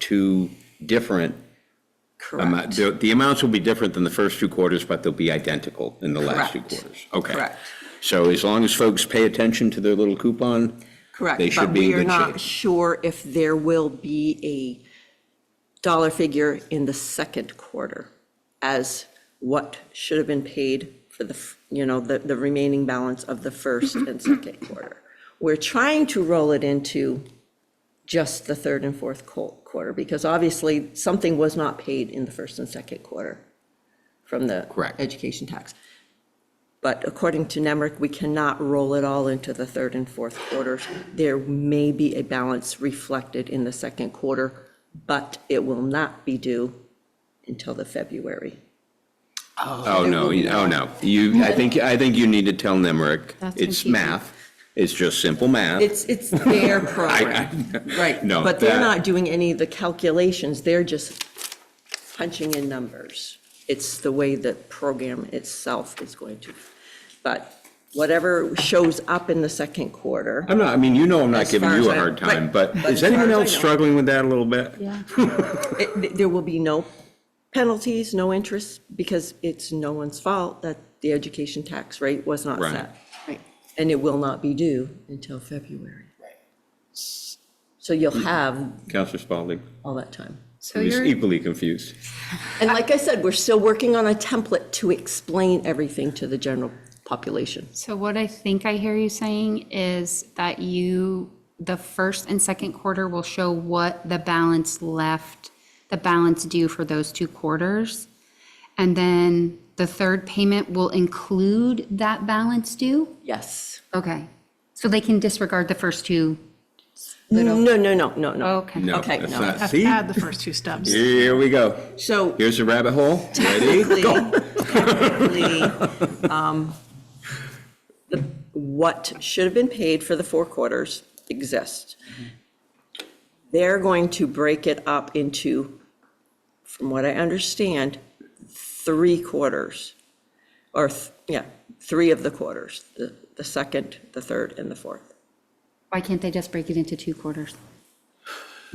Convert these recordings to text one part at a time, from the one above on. two different amou- Correct. the the amounts will be different than the first two quarters, but they'll be identical in the last two Correct. quarters. Okay. Correct. So as long as folks pay attention to their little coupon, Correct. They should be in good But we are shape. not sure if there will be a dollar figure in the second quarter as what should have been paid for the, f- you know, the, the remaining balance of the first and second quarter. We're trying to roll it into just the third and fourth co- quarter, because obviously something was not paid in the first and second quarter from the Correct. education tax. But according to NEMRIC, we cannot roll it all into the third and fourth quarters. There may be a balance reflected in the second quarter, but it will not be due until the February. oh, no, you- oh, no. You, I think, I think you need to tell Nemrick, That's it's confusing. math, it's just simple math. It's, it's their program, right? No, But they're that- not doing any of the calculations, they're just punching in numbers. It's the way the program itself is going to. But whatever shows up in the second quarter, I'm not, I mean, you know I'm not As giving far you as a I- hard time, right, but but as is far anyone as I else know. struggling with that a little bit? Yeah, it- there will be no penalties, no interest, because it's no one's fault that the education tax rate was not Right. set. right. And it will not be due until February. So you'll have Counselor Spalding all that time. So is you're, equally confused. And like I said, we're still working on a template to explain everything to the general population. so what I think I hear you saying is that you, the first and second quarter will show what the balance left, the balance due for those two quarters. And then the third payment will include that balance due? Yes. Okay. So they can disregard the first two? No, no, no, no, no. Okay. No, Okay, that's no. not, Have see, had the first two steps. here we go. So Here's the rabbit hole. Ready? technically, technically, um, the- what should have been paid for the four quarters exists. They're going to break it up into, from what I understand, three quarters. Or, th- yeah, three of the quarters, the, the second, the third, and the fourth. Why can't they just break it into two quarters?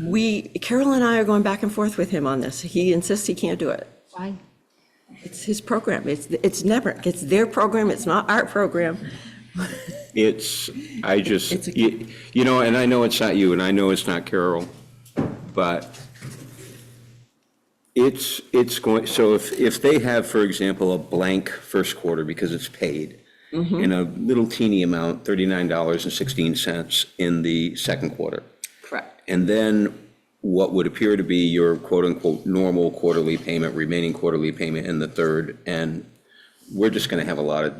We, Carol and I are going back and forth with him on this. He insists he can't do it. Why? It's his program. It's, it's never, it's their program. It's not our program. It's, I just, It's a- you you know, and I know it's not you, and I know it's not Carol, but it's, it's going, so if, if they have, for example, a blank first quarter because it's paid, Mm-hmm. and a little teeny amount, $39.16 in the second quarter, Correct. and then what would appear to be your quote-unquote normal quarterly payment, remaining quarterly payment in the third, and we're just going to have a lot of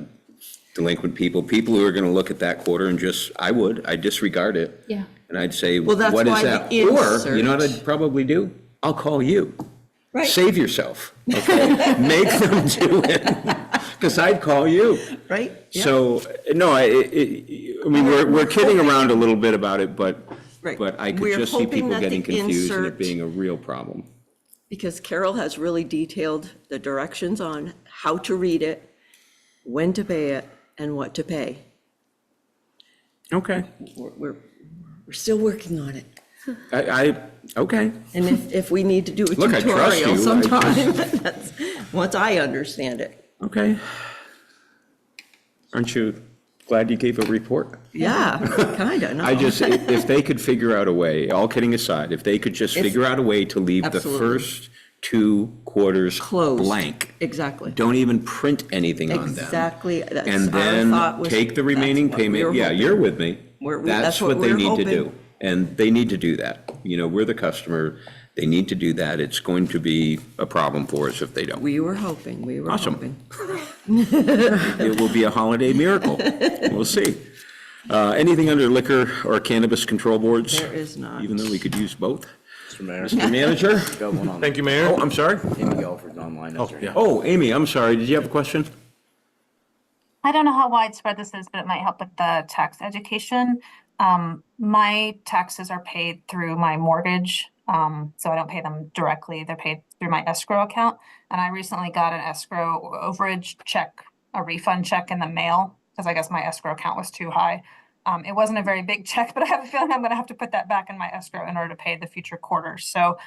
delinquent people, people who are going to look at that quarter and just, I would, I disregard it. Yeah. And I'd say, Well, what that's is why that? the Or, you know what insert- I'd probably do? I'll call you. Right. Save yourself, okay? Make them do it, because I'd call you. Right? Yeah. So, no, I, it- it- I mean, we're, we're kidding around a little bit about it, but, Right. but I could We're just see hoping people that the getting confused and it insert- being a real problem. Because Carol has really detailed the directions on how to read it, when to pay it, and what to pay. Okay. We're, we're, we're still working on it. I, I, okay. And if, if we need to do a Look, I trust tutorial you. I sometime, that's, once I understand it. Okay. Aren't you glad you gave a report? Yeah, kinda, no. I just, i- if they could figure out a way, all kidding aside, if they could just If- figure out a way to leave the Absolutely. first two quarters Closed. blank. Exactly. Don't even print anything on them. Exactly, that's And our thought then was. take the that's remaining what we were payment, yeah, hoping. you're with me. We're- we- That's what they we're need to hoping. do. And they need to do that. You know, we're the customer, they need to do that. It's going to be a problem for us if they don't. We were hoping, we were Awesome. hoping. It will be a holiday miracle. We'll see. Uh, Anything under liquor or cannabis control boards? There is not. Even though we could use both. Mr. Mayor, Mr. Manager? got one on, Thank you, Mayor. Oh, I'm sorry. Amy Alford's online. Oh, yeah. Oh, Amy, I'm sorry. Did you have a question? I don't know how widespread this is, but it might help with the tax education. Um, my taxes are paid through my mortgage, um, so I don't pay them directly. They're paid through my escrow account. And I recently got an escrow overage check, a refund check in the mail, because I guess my escrow account was too high. Um, it wasn't a very big check, but I have a feeling I'm gonna have to put that back in my escrow in order to pay the future quarters. So